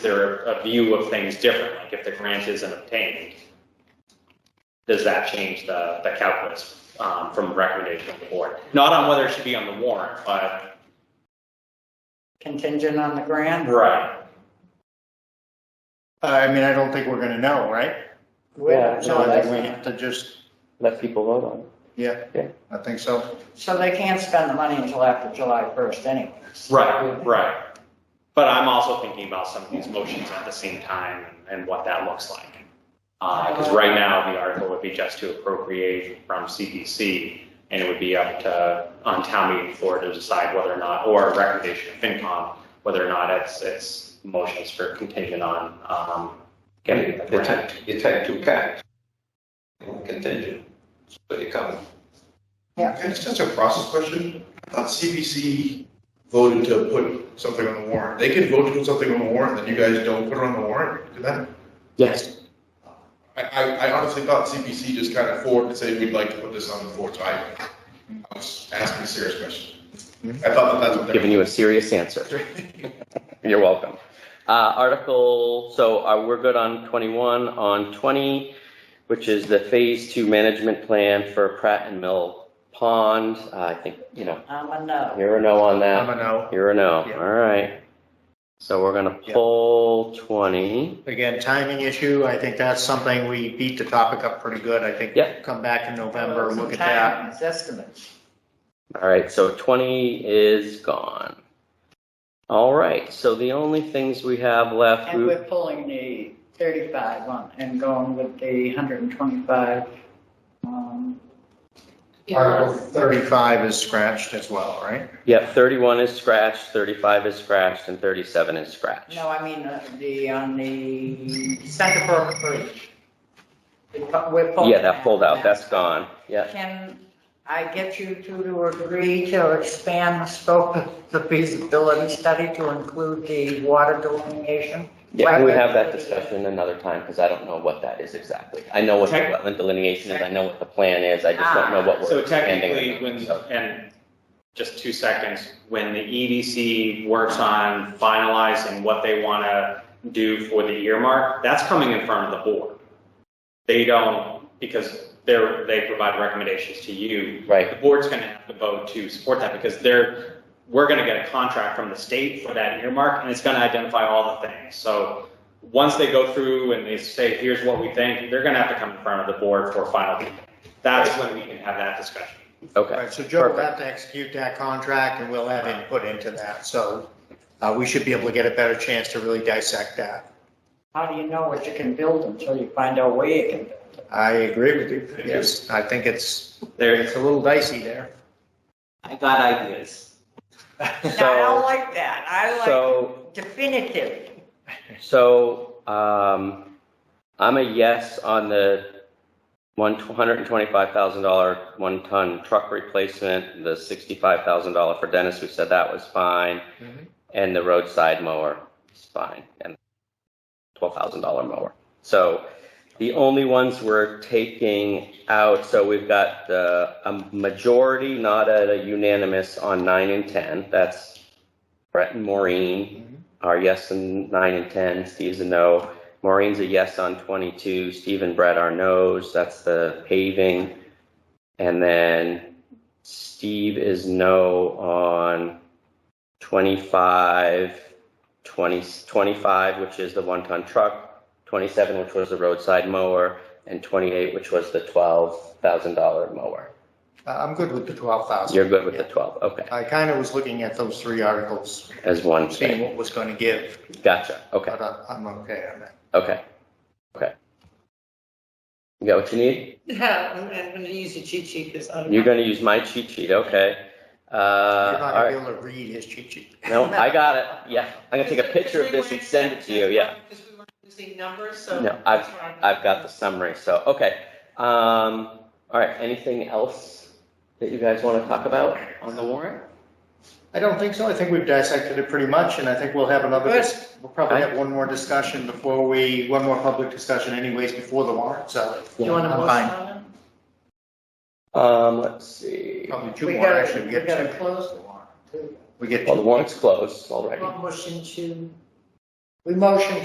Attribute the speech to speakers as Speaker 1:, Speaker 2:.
Speaker 1: their a view of things different? Like if the grant isn't obtained, does that change the, the calculus um, from recommendation of the board? Not on whether it should be on the warrant, but.
Speaker 2: contingent on the grant?
Speaker 1: Right.
Speaker 3: Uh, I mean, I don't think we're gonna know, right?
Speaker 2: We don't
Speaker 3: So
Speaker 2: know
Speaker 3: I
Speaker 2: that.
Speaker 3: think we have to just,
Speaker 4: let people vote on it.
Speaker 3: yeah,
Speaker 4: Yeah.
Speaker 3: I think so.
Speaker 2: So they can't spend the money until after July 1st anyways.
Speaker 1: Right, right. But I'm also thinking about some of these motions at the same time and what that looks like. Because right now, the article would be just to appropriate from CPC, and it would be up to, on town meeting floor to decide whether or not, or a recommendation of FinCom, whether or not it's, it's motions for contingent on um, getting the
Speaker 5: You
Speaker 1: grant.
Speaker 5: take, you take two caps. Contingent, but you come.
Speaker 6: Can I just ask a process question? I thought CBC voted to put something on the warrant. They could vote to put something on the warrant, then you guys don't put it on the warrant, could that?
Speaker 4: Yes.
Speaker 6: I, I, I honestly thought CBC just kind of forwarded and said, we'd like to put this on the floor, so I, I was asking a serious question. I thought that that's what they.
Speaker 4: Giving you a serious answer. You're welcome. Uh, Article, so uh, we're good on 21, on 20, which is the Phase 2 Management Plan for Pratt and Mill Pond. Uh, I think, you know,
Speaker 2: I'm a no.
Speaker 4: you're a no on
Speaker 3: I'm
Speaker 4: that.
Speaker 3: a no.
Speaker 4: You're a no,
Speaker 3: Yeah.
Speaker 4: all right. So we're going to
Speaker 3: Yeah.
Speaker 4: pull 20.
Speaker 3: Again, timing issue, I think that's something we beat the topic up pretty good. I think
Speaker 4: Yeah.
Speaker 3: come back in November, look at that.
Speaker 2: Time is estimates.
Speaker 4: All right, so 20 is gone. All right, so the only things we have left.
Speaker 2: And
Speaker 4: we-
Speaker 2: we're pulling the 35 on and going with the 125. um,
Speaker 3: Article 35 is scratched as well, right?
Speaker 4: Yep, 31 is scratched, 35 is scratched, and 37 is scratched.
Speaker 2: No, I mean, uh, the, on the Center Brook Bridge. We're pu- We're pulling.
Speaker 4: Yeah, that pulled out, that's gone, yeah.
Speaker 2: Can I get you two to agree to expand the scope of the feasibility study to include the water delineation?
Speaker 4: Yeah, can we have that discussion another time, because I don't know what that is exactly. I know what the
Speaker 1: Tech-
Speaker 4: wetland delineation is, I know what the plan is, I just don't know what
Speaker 1: So
Speaker 4: we're
Speaker 1: technically,
Speaker 4: ending.
Speaker 1: when, and just two seconds, when the EDC works on finalizing what they want to do for the earmark, that's coming in front of the board. They don't, because they're, they provide recommendations to you.
Speaker 4: Right,
Speaker 1: The board's going to have to vote to support that because they're, we're going to get a contract from the state for that earmark and it's going to identify all the things. So once they go through and they say, here's what we think, they're going to have to come in front of the board for final. That's when we can have that discussion.
Speaker 3: All
Speaker 4: okay,
Speaker 3: right, so Joe will
Speaker 4: Perfect.
Speaker 3: have to execute that contract and we'll have input into that. So uh, we should be able to get a better chance to really dissect that.
Speaker 2: How do you know what you can build until you find out where you can build?
Speaker 3: I agree with you. Yes, I think it's,
Speaker 1: There,
Speaker 3: it's a little dicey there.
Speaker 7: I got ideas.
Speaker 2: No, I don't
Speaker 4: so,
Speaker 2: like that. I
Speaker 4: so
Speaker 2: like definitive.
Speaker 4: So, um, I'm a yes on the one hundred and twenty-five thousand dollar one ton truck replacement, the sixty-five thousand dollar for Dennis, we said that was fine.
Speaker 3: Mhm.
Speaker 4: And the roadside mower is fine, and twelve thousand dollar mower. So the only ones we're taking out, so we've got, uh, a majority, not a unanimous on nine and ten, that's Brett and Maureen are yes and nine and ten. Steve's a no. Maureen's a yes on twenty-two. Steve and Brett are no's. That's the paving. And then Steve is no on 25, 20 25, which is the one-ton truck, twenty-seven, which was the roadside mower, and twenty-eight, which was the twelve thousand dollar mower.
Speaker 3: Uh, I'm good with the 12,000.
Speaker 4: You're good with the twelve, okay,
Speaker 3: I kind of was looking at those three articles,
Speaker 4: as one
Speaker 3: seeing
Speaker 4: thing.
Speaker 3: what was going to give,
Speaker 4: Gotcha, okay,
Speaker 3: but I- I'm okay on that.
Speaker 4: okay, okay. You got what you need?
Speaker 7: Yeah, I'm, I'm gonna use a cheat sheet because I'm.
Speaker 4: You're gonna use my cheat sheet, okay. Uh,
Speaker 3: You're not
Speaker 4: all
Speaker 3: going
Speaker 4: right,
Speaker 3: to be able to read his cheat sheet.
Speaker 4: no, I got it, yeah, I'm gonna take a picture of this and send it to you, yeah.
Speaker 7: Because we weren't using numbers, so.
Speaker 4: No,
Speaker 7: that's why I'm-
Speaker 4: I've got the summary, so, okay. Um, all right, anything else that you guys wanna talk about on the warrant?
Speaker 3: I don't think so. I think we've dissected it pretty much, and I think we'll have another, dis- we'll probably
Speaker 4: Right.
Speaker 3: have one more discussion before we, one more public discussion anyways before the warrant, so.
Speaker 7: You want to
Speaker 3: I'm
Speaker 7: motion
Speaker 3: fine.
Speaker 7: on it?
Speaker 4: Um, let's see,
Speaker 3: Probably two
Speaker 2: We
Speaker 3: more,
Speaker 2: gotta,
Speaker 3: actually.
Speaker 2: we
Speaker 3: We get
Speaker 2: gotta
Speaker 3: two.
Speaker 2: close the warrant. too.
Speaker 3: We get
Speaker 4: well, the
Speaker 3: two.
Speaker 4: warrant's closed already.
Speaker 7: One motion to
Speaker 2: We motion